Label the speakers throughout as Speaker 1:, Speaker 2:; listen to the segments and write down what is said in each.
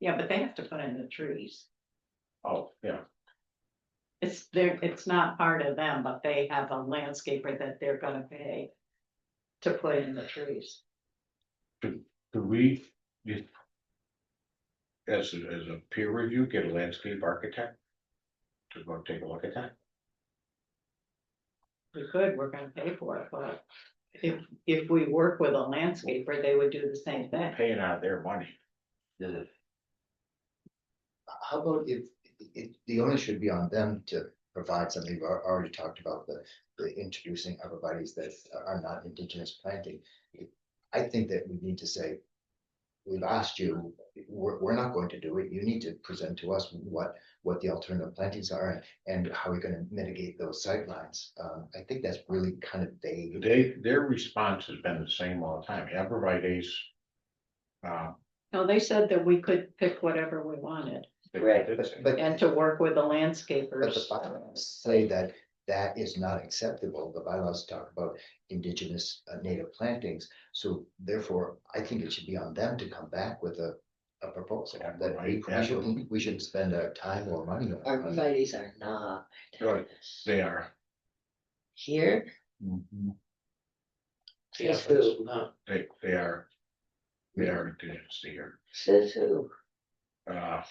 Speaker 1: Yeah, but they have to put in the trees.
Speaker 2: Oh, yeah,
Speaker 1: It's their, it's not part of them, but they have a landscaper that they're gonna pay. To put in the trees.
Speaker 2: could we? just As, a- as a peer review, get a landscape architect? To go take a look at that,
Speaker 1: We could, we're gonna pay for it, but. If, if we work with a landscaper, they would do the same thing.
Speaker 2: paying out their money,
Speaker 3: How about if, if, the onus should be on them to provide something, we've al- already talked about the, the introducing everybody's that are not indigenous planting. I think that we need to say, we've asked you, we're, we're not going to do it, you need to present to us what, what the alternative plantings are and how we're gonna mitigate those sightlines. Um, I think that's really kind of vague.
Speaker 2: they, their response has been the same all the time, everybody's. Uh,
Speaker 1: No, they said that we could pick whatever we wanted
Speaker 2: they
Speaker 4: Right,
Speaker 2: did
Speaker 3: But,
Speaker 2: say-
Speaker 3: but
Speaker 1: and to work with the
Speaker 3: But the
Speaker 1: landscapers.
Speaker 3: bylaws say that that is not acceptable. The bylaws talk about indigenous uh, native plantings. So therefore, I think it should be on them to come back with a, a proposal
Speaker 2: Yeah,
Speaker 3: that we-
Speaker 2: right,
Speaker 3: we shouldn't, we shouldn't spend our time or money on.
Speaker 4: Our
Speaker 3: it.
Speaker 4: Arborvitae's are not.
Speaker 2: Right. They are.
Speaker 4: Here,
Speaker 2: Mhm.
Speaker 4: says who,
Speaker 2: They, they are. They are indigenous here,
Speaker 4: says who,
Speaker 2: uh,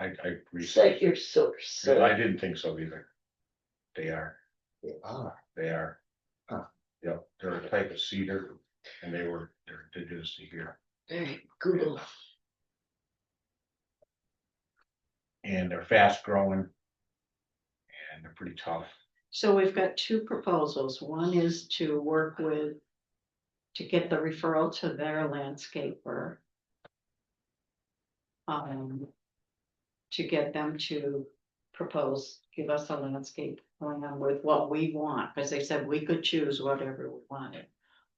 Speaker 2: I, I
Speaker 4: cite
Speaker 2: agree,
Speaker 4: your source.
Speaker 2: No, I
Speaker 4: sir.
Speaker 2: didn't think so either. They are.
Speaker 3: They are.
Speaker 2: They are.
Speaker 3: Huh.
Speaker 2: Yeah, they're a type of cedar and they were, they're indigenous to here
Speaker 4: Alright, Google,
Speaker 2: and they're fast growing. And they're pretty tough.
Speaker 1: So we've got two proposals. One is to work with. To get the referral to their landscaper. Um. To get them to propose, give us a landscape going on with what we want, because they said we could choose whatever we wanted.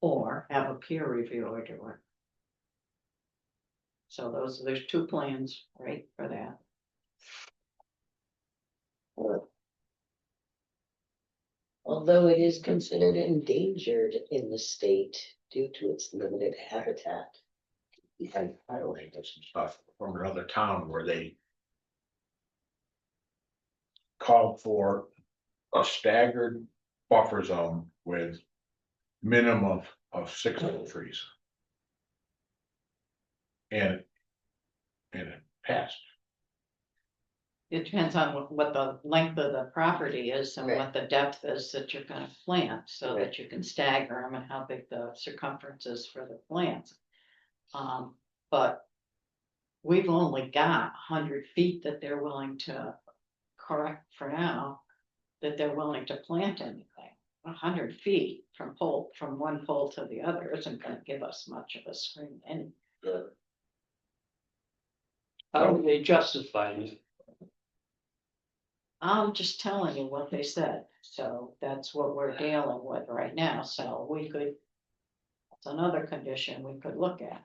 Speaker 1: Or have a peer reviewer do it. So those, there's two plans, right, for that.
Speaker 4: although it is considered endangered in the state due to its limited habitat.
Speaker 2: I, I only got some stuff from another town where they. Called for a staggered buffer zone with. Minimum of, of six little trees. And. And it passed.
Speaker 1: It depends on what- what the length of the property is and
Speaker 4: Right.
Speaker 1: what the depth is that you're gonna plant, so that you can stagger them and how big the circumference is for the plants. Um, but we've only got hundred feet that they're willing to correct for now, that they're willing to plant anything. hundred feet from pole, from one pole to the other isn't gonna give us much of a screen and.
Speaker 5: How are they justifying it?
Speaker 1: I'm just telling you what they said, so that's what we're dealing with right now, so we could. It's another condition we could look at.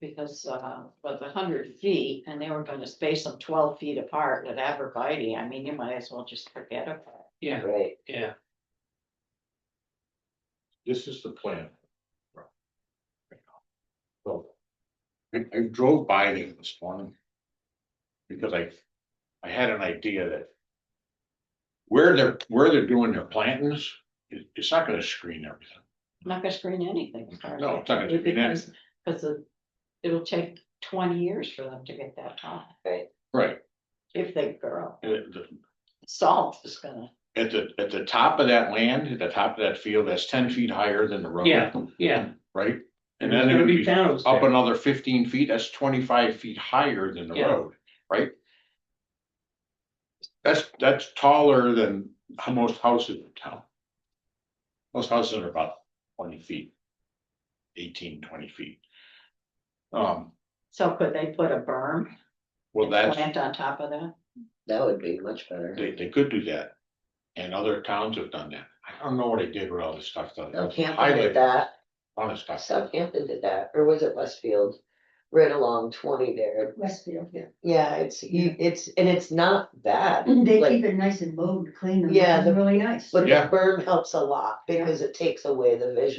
Speaker 1: Because, uh, but the hundred feet, and they were gonna space them twelve feet apart at Abercrombie, I mean, you might as well just forget about it.
Speaker 5: Yeah,
Speaker 4: Right,
Speaker 5: yeah,
Speaker 2: This is the plan. So. I, I drove by there this morning. Because I, I had an idea that. Where they're, where they're doing their plantings, it, it's not gonna screen everything.
Speaker 1: I'm not gonna screen anything. as far as
Speaker 2: No,
Speaker 1: I
Speaker 2: it's not
Speaker 1: can
Speaker 2: gonna
Speaker 1: do,
Speaker 2: screen
Speaker 1: because- Cause the- it'll take twenty years for them to get that high,
Speaker 2: Right.
Speaker 1: if they grow,
Speaker 2: And at the-
Speaker 1: salt is gonna,
Speaker 2: at the, at the top of that land, at the top of that field, that's ten feet higher than the road.
Speaker 5: yeah, yeah.
Speaker 2: Right?
Speaker 5: And
Speaker 2: And then
Speaker 5: there's
Speaker 2: it
Speaker 5: gonna
Speaker 2: would
Speaker 5: be
Speaker 2: be
Speaker 5: towns
Speaker 2: up
Speaker 5: there.
Speaker 2: another fifteen feet, that's twenty-five feet higher than the
Speaker 5: Yeah.
Speaker 2: road, right? That's, that's taller than how most houses in town. Most houses are about twenty feet. 18, 20 feet. Um,
Speaker 1: so could they put a berm?
Speaker 2: well,
Speaker 1: and
Speaker 2: that's,
Speaker 1: Plant on top of that,
Speaker 4: that would be much better.
Speaker 2: they, they could do that. And other towns have done that. I don't know what they did with all this stuff. though.
Speaker 4: South Hampton
Speaker 2: Highlight
Speaker 4: did that,
Speaker 2: all this stuff.
Speaker 4: Southampton did that, or was it Westfield? Right along twenty there,
Speaker 6: Westfield, yeah.
Speaker 4: yeah, it's, you- it's, and it's not bad.
Speaker 6: They
Speaker 4: like-
Speaker 6: keep it nice and mowed, clean, and
Speaker 4: Yeah,
Speaker 6: it's
Speaker 4: the-
Speaker 6: really nice.
Speaker 4: But the
Speaker 2: Yeah.
Speaker 4: berm helps a lot because it takes away the visual.